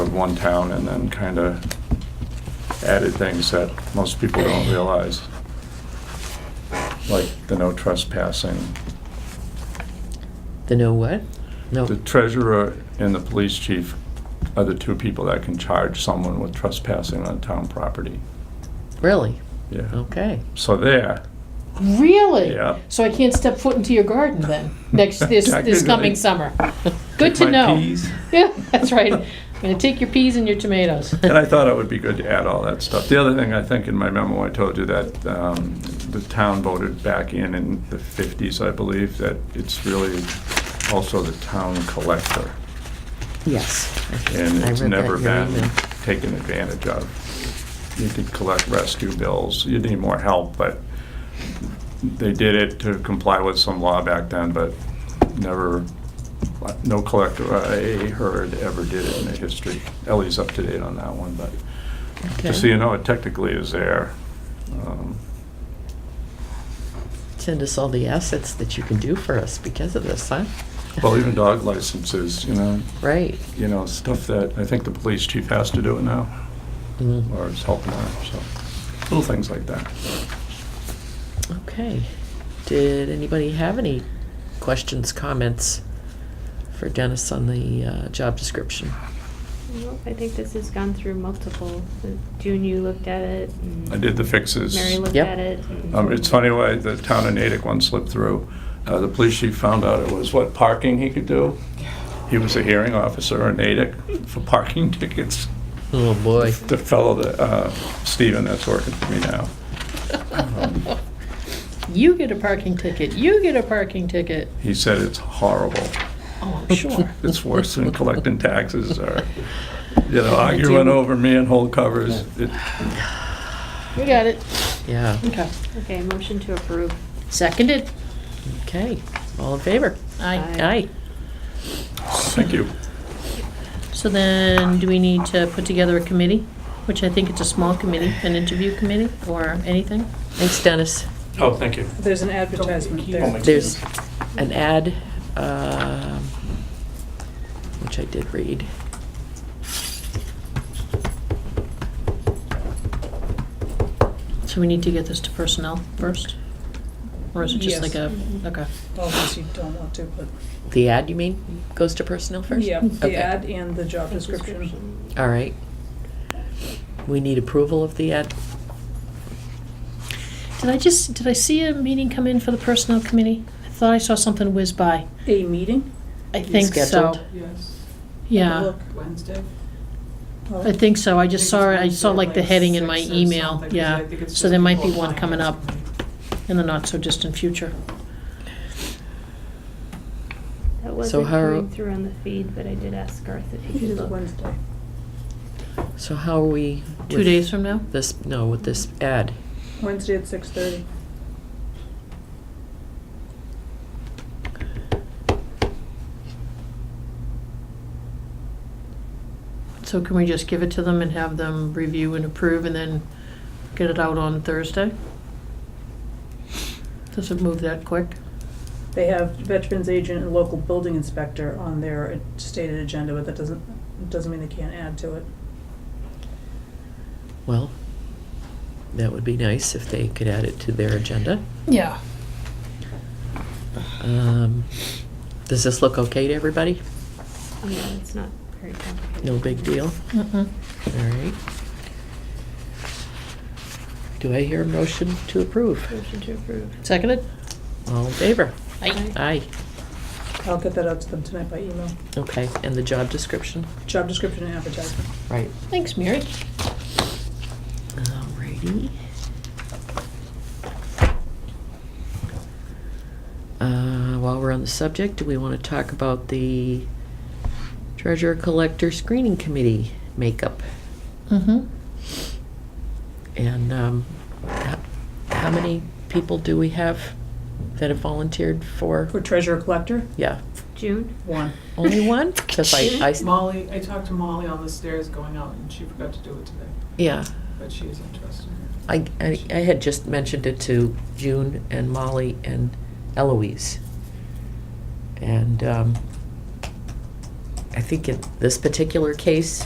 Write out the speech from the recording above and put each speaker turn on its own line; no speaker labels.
with one town and then kind of added things that most people don't realize. Like the no trespassing.
The no what? No.
The treasurer and the police chief are the two people that can charge someone with trespassing on town property.
Really?
Yeah.
Okay.
So there,
Really?
Yeah.
So I can't step foot into your garden then, next, this, this
Technically.
coming summer? Good to
my
know.
peas.
Yeah, that's right. I'm gonna take your peas and your tomatoes.
And I thought it would be good to add all that stuff. The other thing, I think in my memo, I told you that um, the town voted back in in the 50s, I believe, that it's really also the town collector.
Yes.
And
I
it's
read that
never
in your
been
email.
taken advantage of. You could collect rescue bills, you need more help, but they did it to comply with some law back then, but never, no collector I heard ever did it in the history. Ellie's up to date on that one, but
Okay.
just so you know, it technically is there. Um,
Send us all the assets that you can do for us because of this, huh?
Well, even dog licenses, you know,
Right.
you know, stuff that I think the police chief has to do it now,
Mm.
or is helping out, so, little things like that.
Okay. Did anybody have any questions, comments for Dennis on the uh, job description?
Well, I think this has gone through multiple. June, you looked at it. and
I did the fixes.
Mary looked
Yep.
at it. and-
Um, It's funny why the town of Natick one slipped through. Uh, The police chief found out it was what parking he could do. He was a hearing officer in Natick for parking tickets.
Oh, boy.
The fellow, that, uh, Stephen, that's working for me now.
You get a parking ticket, you get a parking ticket.
He said it's horrible.
Oh, I'm sure.
It's worse than collecting taxes or, you know, arguing over manhole covers. It-
We got it.
Yeah.
Okay.
Okay, motion to approve.
Seconded.
Okay. All in favor?
Aye.
Aye.
Thank you.
So then, do we need to put together a committee? Which I think it's a small committee, an interview committee or anything?
Thanks, Dennis.
Oh, thank you.
There's an advertisement there.
There's an ad, um, which I did read.
So we need to get this to personnel first? Or is it just
Yes.
like a, okay.
Obviously, you don't want to, but,
The ad, you mean, goes to personnel first?
yeah, the
Okay.
ad and the job description.
All right. We need approval of the ad.
Did I just, did I see a meeting come in for the personnel committee? I thought I saw something whiz by.
A meeting?
I think so.
scheduled?
Yes.
Yeah,
Look.
Wednesday?
Oh,
I think so. I just saw, it. I
Wednesday
saw
at
like the
like
heading in
six
my
or
email,
something, 'cause
yeah.
I think it's
So
just
there might be
people
one
applying
coming
or
up in the not-so-distant future.
That
So
wasn't
how-
coming through on the feed, but I did ask Garth if he
It
could
is
look.
Wednesday.
So how are we?
Two
with
days from now?
This, no, with this ad.
Wednesday at six thirty.
So can we just give it to them and have them review and approve and then get it out on Thursday? Does it move that quick?
They have veterans agent and local building inspector on their stated agenda, but that doesn't, doesn't mean they can't add to it.
Well, that would be nice if they could add it to their agenda.
Yeah.
Um, Does this look okay to everybody?
Yeah, it's not very complicated.
No big deal?
Mm-mm.
All right. Do I hear a motion to approve?
Motion to approve.
Seconded?
All in favor?
Aye.
Aye.
I'll get that out to them tonight by email.
Okay, and the job description?
Job description and advertisement.
Right.
Thanks, Mary.
Alrighty. Uh, While we're on the subject, do we want to talk about the treasurer collector screening committee makeup?
Mm-hmm.
And um, h- how many people do we have that have volunteered for?
For treasurer collector,
Yeah,
June?
one.
only one? 'Cause I- I-
Molly, I talked to Molly on the stairs going out, and she forgot to do it today,
Yeah,
but she is interested.
I, I I had just mentioned it to June and Molly and Eloise. And um, I think in this particular case,